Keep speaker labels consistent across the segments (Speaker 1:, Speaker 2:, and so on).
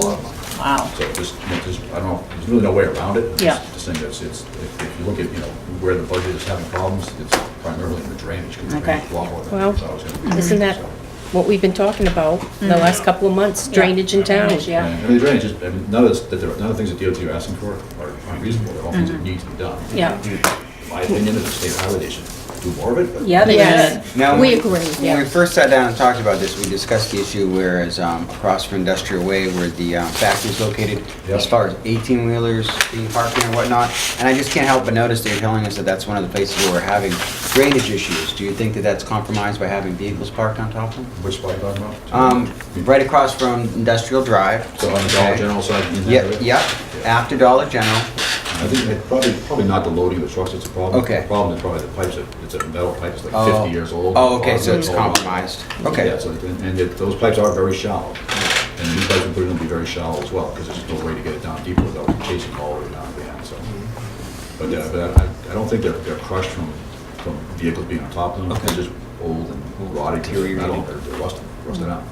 Speaker 1: lot of money.
Speaker 2: Wow.
Speaker 1: So this, this, I don't, know, there's really no way around it.
Speaker 2: Yeah.
Speaker 1: This thing that's, it's, if if you look at, you know, where the budget is having problems, it's primarily in the drainage, because the
Speaker 2: Okay.
Speaker 1: drainage is a lot more than I
Speaker 3: Well,
Speaker 1: thought it was gonna be.
Speaker 3: Isn't that
Speaker 1: So-
Speaker 3: what we've been talking about the last couple of months, drainage in town?
Speaker 2: Drainage, yeah.
Speaker 1: And the drainage is, I mean, none of this, that there are- none of the things that DOT are asking for are unreasonable, they're all things that need to be done.
Speaker 2: Mm-hmm. Yeah.
Speaker 1: In My opinion, is the state highway, they should do more of it, but.
Speaker 2: Yeah, they
Speaker 3: Yes.
Speaker 2: did.
Speaker 4: Now,
Speaker 3: We
Speaker 4: when-
Speaker 3: agree,
Speaker 4: When we
Speaker 3: yeah.
Speaker 4: first sat down and talked about this, we discussed the issue whereas um, across from Industrial Way where the um, factory's located,
Speaker 1: Yeah.
Speaker 4: as far as 18-wheelers being parked there and whatnot, and I just can't help but notice that you're telling us that that's one of the places where we're having drainage issues. Do you think that that's compromised by having vehicles parked on top of them?
Speaker 1: Which spot are you talking about?
Speaker 4: Um, Right across from Industrial Drive.
Speaker 1: So on the Dollar General side, in that
Speaker 4: Yeah,
Speaker 1: area?
Speaker 4: yeah, after Dollar General.
Speaker 1: I think it probably, probably not the loading of the trucks, it's a problem.
Speaker 4: Okay.
Speaker 1: The problem is probably the pipes, that- it's a metal pipe, it's like
Speaker 4: Oh.
Speaker 1: fifty years old.
Speaker 4: Oh, okay, so it's
Speaker 1: Old.
Speaker 4: compromised. Okay.
Speaker 1: Yeah, so, and and it- those pipes are very shallow, and these pipes we put in will be very shallow as well, because there's no way to get it down deeper without chasing all the way down behind, so. But, uh, but I, I don't think they're, they're crushed from, from vehicles being on top of them, they're just old and rotted, 'cause they're metal, they're they're rusted, rusted out.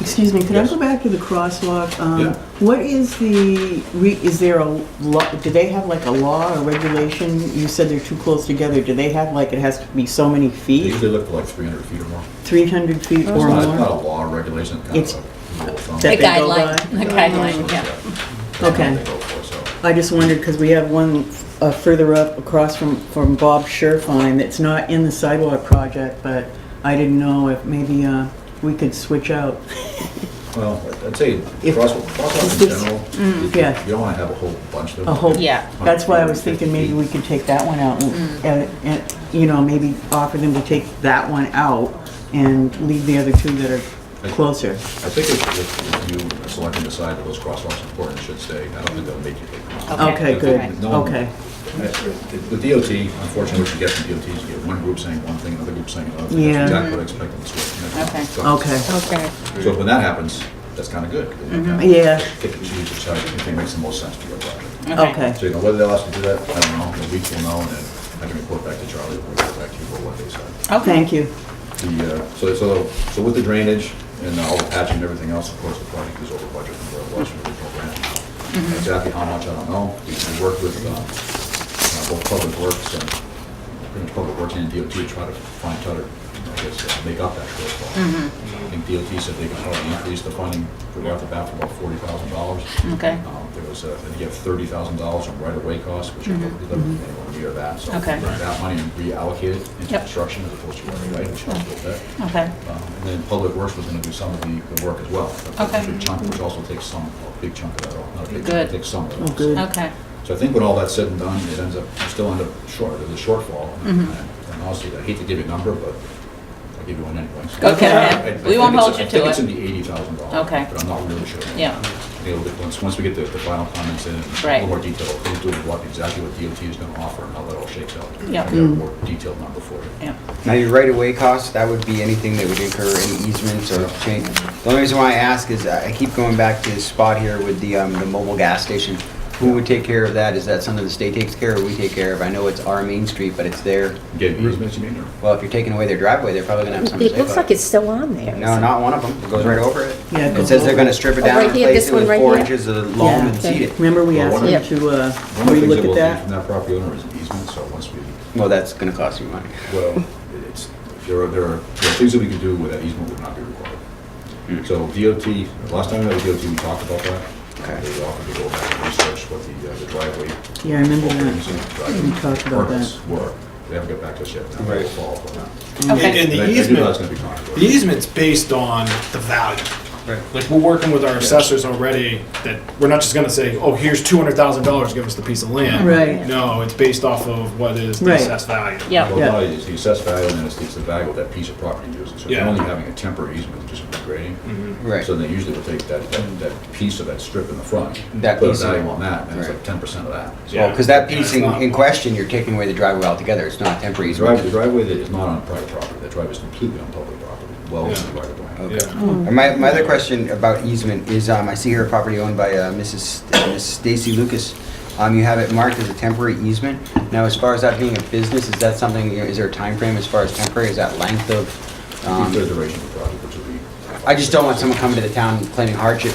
Speaker 5: Excuse me, could I
Speaker 1: Yes.
Speaker 5: go back to the crosswalk? Um,
Speaker 1: Yeah.
Speaker 5: What is the, re- is there a law, do they have like a law or regulation? You said they're too close together. Do they have like, it has to be so many
Speaker 1: They
Speaker 5: feet,
Speaker 1: usually look for like three hundred feet or more.
Speaker 5: 300 feet
Speaker 1: It's
Speaker 5: or
Speaker 1: not, it's not a
Speaker 5: more?
Speaker 1: law or regulation, kind
Speaker 5: It's-
Speaker 1: of a rule of thumb.
Speaker 5: that
Speaker 2: A
Speaker 5: they go
Speaker 2: guideline,
Speaker 5: by?
Speaker 2: a guideline, yeah.
Speaker 5: Okay. I just wondered, because we have one uh, further up across from, from Bob Sherfine that's not in the sidewalk project, but I didn't know if maybe uh, we could switch out.
Speaker 1: Well, I'd say
Speaker 5: If-
Speaker 1: crosswalk, crosswalks in
Speaker 5: It's-
Speaker 1: general, you-
Speaker 5: yeah.
Speaker 1: you don't want to have a whole bunch of them.
Speaker 5: A whole,
Speaker 2: Yeah.
Speaker 5: that's why I was thinking maybe we could take that one out and- and, and, you know, maybe offer them to take that one out and leave the other two that are closer.
Speaker 1: I think if, if if you select and decide that those crosswalks are important, it should stay, I don't think they'll make you take them out.
Speaker 5: Okay, good,
Speaker 1: No one-
Speaker 5: okay.
Speaker 1: The DOT, unfortunately, what you get from DOT is you get one group saying one thing, another group saying another thing.
Speaker 5: Yeah.
Speaker 1: That's exactly what I expected this way.
Speaker 5: Okay.
Speaker 3: Okay.
Speaker 1: So when that happens, that's kind of good.
Speaker 5: Mm-hmm. Yeah.
Speaker 1: Pick and choose which side you think makes the most sense to your project.
Speaker 5: Okay.
Speaker 1: So, you know, whether they'll ask to do that, I don't know, in a week we'll know, and then I can report back to Charlie, we'll report back to you for what they said.
Speaker 5: Thank you.
Speaker 1: The, uh, so, so, so with the drainage and all the patching and everything else, of course, the project is over budget from where it was from the original grant. Exactly how much, I don't know, we we worked with, uh, uh, both Public Works and, pretty much Public Works and DOT to try to find, try to, I guess, uh, make up that shortfall. I think DOT said they could probably increase the funding, right off the bat, for about forty thousand dollars.
Speaker 2: Okay,
Speaker 1: Um, There was, uh, I think you have thirty thousand dollars in right-of-way costs, which are anywhere near that. So
Speaker 2: Mm-hmm. Okay.
Speaker 1: take that money and reallocate it into
Speaker 2: Yep.
Speaker 1: construction as opposed to right-of-way, which helped with that.
Speaker 2: okay,
Speaker 1: Um, And then Public Works was gonna do some of the, the work as well. That's a
Speaker 2: Okay.
Speaker 1: Big chunk, which also takes some, a big chunk of that off, not a big,
Speaker 2: Good.
Speaker 1: chunk, takes some of it
Speaker 5: Oh,
Speaker 1: off.
Speaker 5: good.
Speaker 2: okay.
Speaker 1: So I think when all that's said and done, it ends up, you still end up short, there's a shortfall.
Speaker 2: Mm-hmm.
Speaker 1: And and honestly, I hate to give you a number, but I'll give you one anyway.
Speaker 2: Go ahead.
Speaker 1: I- I
Speaker 2: We
Speaker 1: think it's-
Speaker 2: won't hold you
Speaker 1: I think
Speaker 2: to
Speaker 1: it's
Speaker 2: it.
Speaker 1: in the eighty thousand dollars.
Speaker 2: Okay.
Speaker 1: But I'm not really sure.
Speaker 2: Yeah.
Speaker 1: You know, that once, once we get the, the final comments in, a
Speaker 2: Right.
Speaker 1: little more detail, who's doing what, exactly what DOT is gonna offer and how that all shakes out.
Speaker 2: Yeah.
Speaker 1: I got a more detailed number for you.
Speaker 2: Yeah.
Speaker 4: Now, your right-of-way costs, that would be anything that would incur any easements or change. The only reason why I ask is I keep going back to this spot here with the, um, the mobile gas station. Who would take care of that? Is that something the state takes care of or we take care of? I know it's our main street, but it's there.
Speaker 1: Get easements, you mean, or?
Speaker 4: Well, if you're taking away their driveway, they're probably gonna have something to
Speaker 3: It
Speaker 4: say
Speaker 3: looks
Speaker 4: about
Speaker 3: like
Speaker 4: it.
Speaker 3: it's still on there.
Speaker 4: No, not one of them. It goes right over it.
Speaker 5: Yeah, it
Speaker 4: It
Speaker 5: goes
Speaker 4: says they're
Speaker 5: over.
Speaker 4: gonna strip it
Speaker 3: Oh,
Speaker 4: down
Speaker 3: right
Speaker 4: and
Speaker 3: here,
Speaker 4: place
Speaker 3: this
Speaker 4: it with
Speaker 3: one right
Speaker 4: four
Speaker 3: here.
Speaker 4: inches of loam
Speaker 5: Yeah.
Speaker 4: and seed it.
Speaker 5: Remember we
Speaker 1: Well,
Speaker 5: asked
Speaker 1: one
Speaker 5: them
Speaker 1: of-
Speaker 5: to, uh,
Speaker 1: One of the things that
Speaker 5: relook
Speaker 1: we'll need
Speaker 5: at
Speaker 1: from
Speaker 5: that?
Speaker 1: that property owner is an easement, so once we
Speaker 4: Well, that's gonna cost you money.
Speaker 1: Well, it's, there are, there are, there are things that we could do where that easement would not be required.
Speaker 4: Hmm.
Speaker 1: So DOT, last time we had a DOT, we talked about that.
Speaker 4: Okay.
Speaker 1: They offered to go back and research what the, uh, the driveway.
Speaker 5: Yeah, I remember
Speaker 1: openings
Speaker 5: that.
Speaker 1: and driveway
Speaker 5: We talked about that.
Speaker 1: permits Were, they haven't got back to us yet, now
Speaker 4: Right.
Speaker 1: will fall for that.
Speaker 2: Okay.
Speaker 6: And
Speaker 1: I- I
Speaker 6: the
Speaker 1: do know that's gonna
Speaker 6: easement,
Speaker 1: be
Speaker 6: the
Speaker 1: controversial.
Speaker 6: easement's based on the value.
Speaker 4: Right.
Speaker 6: Like, we're working with our assessors already, that we're not just gonna say, oh, here's two hundred thousand dollars, give us the piece of land.
Speaker 5: Right.
Speaker 6: No, it's based off of what is the
Speaker 5: Right.
Speaker 6: assessed value.
Speaker 2: Yeah,
Speaker 1: Well, no, it's the assessed value, and then it's, it's the value of that piece of property used, so you're
Speaker 6: Yeah.
Speaker 1: only having a temporary easement, just grading.
Speaker 4: Right.
Speaker 1: So they usually will take that, that, that piece of that strip in the front,
Speaker 4: That
Speaker 1: put a
Speaker 4: piece of-
Speaker 1: value on that, and it's like
Speaker 4: Right.
Speaker 1: ten percent of that. So
Speaker 4: Well, because that piece in,
Speaker 6: Yeah, it's not-
Speaker 4: in question, you're taking away the driveway altogether. It's not temporary
Speaker 1: The driveway,
Speaker 4: easement.
Speaker 1: the driveway that is not on private property, that driveway is completely on public property, well within the right of way.
Speaker 4: Okay.
Speaker 6: Yeah.
Speaker 4: And My, my other question about easement is, um, I see here a property owned by, uh, Mrs. St- Miss Stacy Lucas. Um, you have it marked as a temporary easement. Now, as far as that being a business, is that something, you know, is there a time frame as far as temporary? Is that length of,
Speaker 1: It's the
Speaker 4: um,
Speaker 1: duration of the project, which will be five
Speaker 4: I just don't want someone coming to the town claiming hardship